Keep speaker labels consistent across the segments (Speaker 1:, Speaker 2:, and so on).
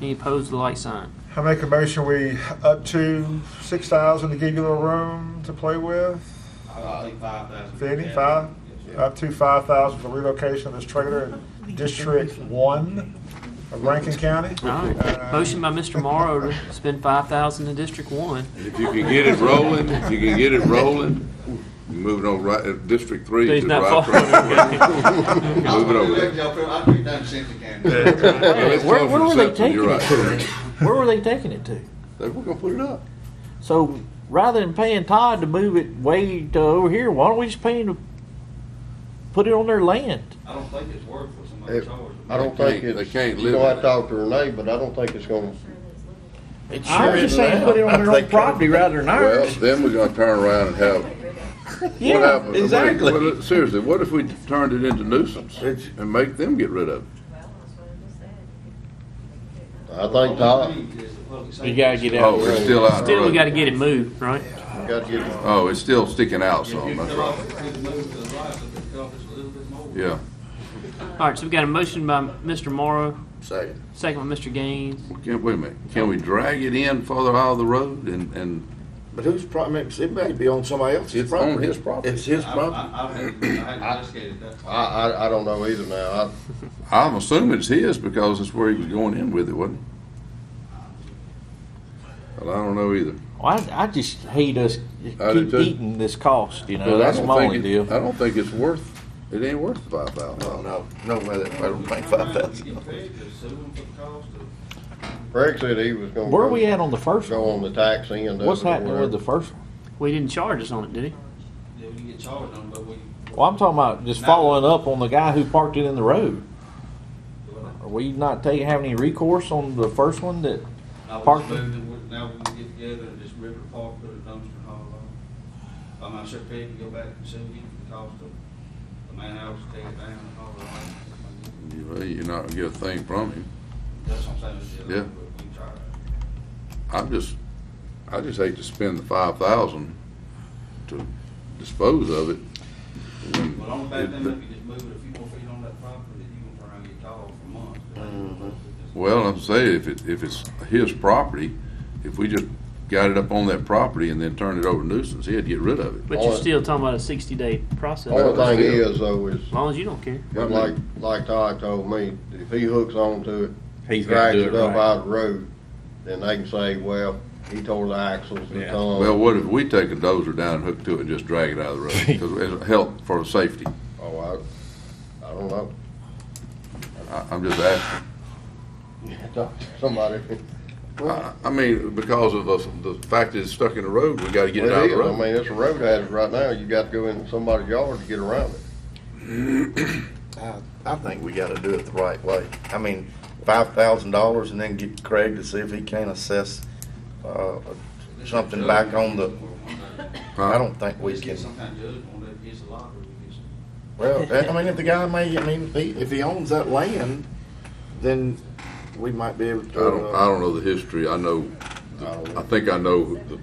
Speaker 1: Any opposed, the light sign.
Speaker 2: I make a motion, we up to six thousand to give you a little room to play with,
Speaker 3: I'll leave five thousand.
Speaker 2: Vinnie, five, up to five thousand for relocation of this trailer in District One of Rankin County. Uh,
Speaker 1: All
Speaker 4: Uh,
Speaker 1: right. Motion by Mr. Morrow to spend five thousand in District One.
Speaker 4: If you can get it rolling, if you can get it rolling, moving on right, uh, District Three.
Speaker 1: He's
Speaker 4: to
Speaker 1: not following,
Speaker 4: right from- Move it over.
Speaker 3: I'll be done since again.
Speaker 4: Well, it's
Speaker 5: Where-
Speaker 4: close
Speaker 5: where
Speaker 4: to
Speaker 5: were they
Speaker 4: something, you're
Speaker 5: taking
Speaker 4: right.
Speaker 5: Where were they taking it to?
Speaker 4: They were gonna put it up.
Speaker 5: So rather than paying Todd to move it way to over here, why don't we just pay him to put it on their land?
Speaker 3: I don't think it's worth what somebody
Speaker 6: It-
Speaker 3: charged.
Speaker 6: I don't
Speaker 4: They
Speaker 6: think
Speaker 4: can't-
Speaker 6: it's.
Speaker 4: they can't
Speaker 6: You
Speaker 4: live
Speaker 6: know,
Speaker 4: in
Speaker 6: I
Speaker 4: it.
Speaker 6: talked to Renee, but I don't think it's gonna.
Speaker 5: I'm just saying, put it on their own property rather than
Speaker 4: Well,
Speaker 5: ours.
Speaker 4: then we're gonna turn around and have, what
Speaker 5: Yeah,
Speaker 4: happened?
Speaker 5: exactly.
Speaker 4: Well, look, Seriously, what if we turned it into nuisance
Speaker 6: It's-
Speaker 4: and make them get rid of it?
Speaker 6: I think Todd,
Speaker 5: You gotta get out.
Speaker 4: Oh, it's still out. in the
Speaker 1: Still, we
Speaker 4: road.
Speaker 1: gotta get it moved, right?
Speaker 6: gotta get,
Speaker 4: Oh, it's still sticking out some, Oh, that's right. Yeah,
Speaker 1: All right, so we got a motion by Mr. Morrow,
Speaker 6: second.
Speaker 1: second by Mr. Gaines.
Speaker 4: Well, can't, wait a minute, can we drag it in further out of the road and, and,
Speaker 7: But whose property, it may be on somebody else's
Speaker 4: It's on
Speaker 7: property.
Speaker 4: his property.
Speaker 7: It's his property.
Speaker 3: I, I, I hadn't investigated that.
Speaker 6: I, I, I don't know either now.
Speaker 4: I'm assuming it's his because it's where he was going in with it, wasn't it? Well, I don't know either.
Speaker 5: Well, I, I just hate us
Speaker 4: I do
Speaker 5: keep
Speaker 4: too.
Speaker 5: eating this cost, you know,
Speaker 4: But I
Speaker 5: that's
Speaker 4: don't
Speaker 5: my
Speaker 4: think
Speaker 5: only
Speaker 4: it-
Speaker 5: deal.
Speaker 4: I don't think it's worth, it ain't worth five thousand.
Speaker 7: No, no, no way that, I don't think five thousand.
Speaker 6: I, Craig said he was gonna.
Speaker 5: Where are
Speaker 6: go-
Speaker 5: we at on the first
Speaker 6: Go
Speaker 5: one?
Speaker 6: on the tax end. of
Speaker 5: What's
Speaker 6: it or
Speaker 5: happening with
Speaker 6: whatever.
Speaker 5: the first one?
Speaker 1: We didn't charge us on it, did he?
Speaker 3: Yeah, we get charged on, it, but we.
Speaker 5: Well, I'm talking about just
Speaker 3: No.
Speaker 5: following up on the guy who parked it in the road. Are we not taking, have any recourse on the first one that,
Speaker 3: Now we
Speaker 5: Parking.
Speaker 3: just moved it, we- now we can get together and just rip it apart, put a dumpster and haul it off. I'm not sure Pete can go back and sue you for the cost of the man hours to take it down and haul it off.
Speaker 4: You're not gonna get a thing from him.
Speaker 3: That's what I'm saying.
Speaker 4: Yeah.
Speaker 3: We try.
Speaker 4: I'm just, I just hate to spend the five thousand to dispose of it. when
Speaker 3: Well, only bad
Speaker 4: it-
Speaker 3: thing, if you just move it a few more feet on that property, you gonna turn around and get called for months.
Speaker 7: Mm-hmm.
Speaker 4: Well, I'm saying if it, if it's his property, if we just got it up on that property and then turned it over to nuisance, he'd get rid of it.
Speaker 1: But you're
Speaker 6: Alright.
Speaker 1: still talking about a sixty-day process.
Speaker 4: Alright.
Speaker 1: As
Speaker 6: Only thing is though is,
Speaker 1: long as you don't care.
Speaker 6: but like, like Todd told me, if he hooks on to it,
Speaker 5: He's gotta do
Speaker 6: drags it
Speaker 5: it
Speaker 6: up
Speaker 5: right.
Speaker 6: out of the road, then they can say, well, he tore the axles, the
Speaker 5: Yeah.
Speaker 4: Well,
Speaker 6: tongue.
Speaker 4: what if we take a dozer down and hook to it and just drag it out of the road? Because it'll help for safety.
Speaker 6: Oh, I, I don't know.
Speaker 4: I, I'm just asking.
Speaker 6: Talk to Somebody.
Speaker 4: I, I mean, because of the, the fact that it's stuck in the road, we gotta get it
Speaker 6: Well,
Speaker 4: out
Speaker 6: it
Speaker 4: of the
Speaker 6: is. I
Speaker 4: road.
Speaker 6: mean, it's a road hazard right now. You got to go in somebody's yard to get around it.
Speaker 7: I, I think we gotta do it the right way. I mean, five thousand dollars and then get Craig to see if he can assess, uh, something back on the, I don't think we
Speaker 3: We just
Speaker 7: can.
Speaker 3: get some kind of judgment on that piece of lottery, we just.
Speaker 7: Well, I mean, if the guy may, I mean, if he, if he owns that land, then we might be able
Speaker 4: I
Speaker 7: to.
Speaker 4: don't, I don't know the history. I know, I think I know the,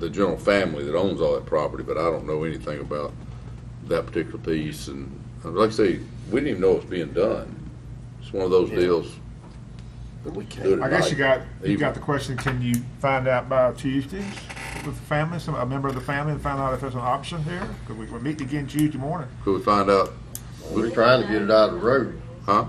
Speaker 4: the general family that owns all that property, but I don't know anything about that particular piece. And like I say, we didn't even know it was being done. It's one of those deals.
Speaker 7: But we can't.
Speaker 4: Do it
Speaker 2: I guess you got, you
Speaker 4: Even.
Speaker 2: got the question, can you find out by Tuesday with the family, some, a member of the family, and find out if there's an option here? Because we, we're meeting again Tuesday morning.
Speaker 4: Could we find out,
Speaker 6: We're trying to get it out of the road.
Speaker 4: huh?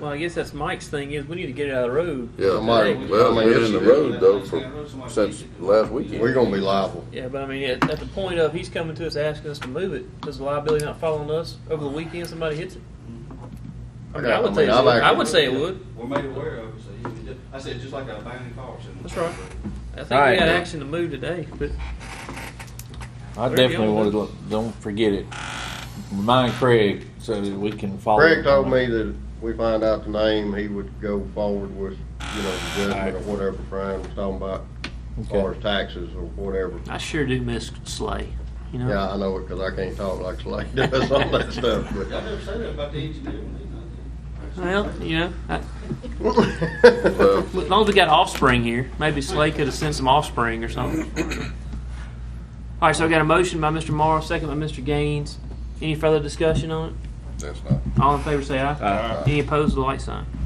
Speaker 1: Well, I guess that's Mike's thing is we need to get it out of the road.
Speaker 4: Yeah,
Speaker 6: Somebody-
Speaker 4: well,
Speaker 6: I mean,
Speaker 4: been in
Speaker 6: it's-
Speaker 4: the road though for, since last weekend.
Speaker 6: We're gonna be liable.
Speaker 1: Yeah, but I mean, at, at the point of he's coming to us asking us to move it, does the liability not fall on us over the weekend? Somebody hits it. I mean, I would say it
Speaker 6: I've
Speaker 1: would. I
Speaker 6: actually-
Speaker 1: would say it would.
Speaker 3: We're made aware of it, so you can just, I said, just like a abandoned car. so-
Speaker 1: That's right. I think
Speaker 5: All right.
Speaker 1: we got action to move today, but
Speaker 5: I
Speaker 1: They're
Speaker 5: definitely
Speaker 1: young,
Speaker 5: want to, look- don't forget it. Remind Craig so that we can follow.
Speaker 6: Craig
Speaker 5: up
Speaker 6: told
Speaker 5: on
Speaker 6: me
Speaker 5: it.
Speaker 6: that if we find out the name, he would go forward with, you know, the judgment or whatever Brian was talking about, as
Speaker 5: Okay.
Speaker 6: far as taxes or whatever.
Speaker 1: I sure do miss Slay. You know.
Speaker 6: Yeah, I know it, cause I can't talk like Slade does on that stuff,
Speaker 3: Y'all never say that about the engineer, when he's not there.
Speaker 1: Well, you know, I,
Speaker 6: but.
Speaker 4: Well,
Speaker 1: as long as we got offspring here, maybe Slay could have sent some offspring or something. All right, so I got a motion by Mr. Morrow, second by Mr. Gaines. Any further discussion on it?
Speaker 4: that's not.
Speaker 1: All in favor, say aye. Any opposed, the light sign.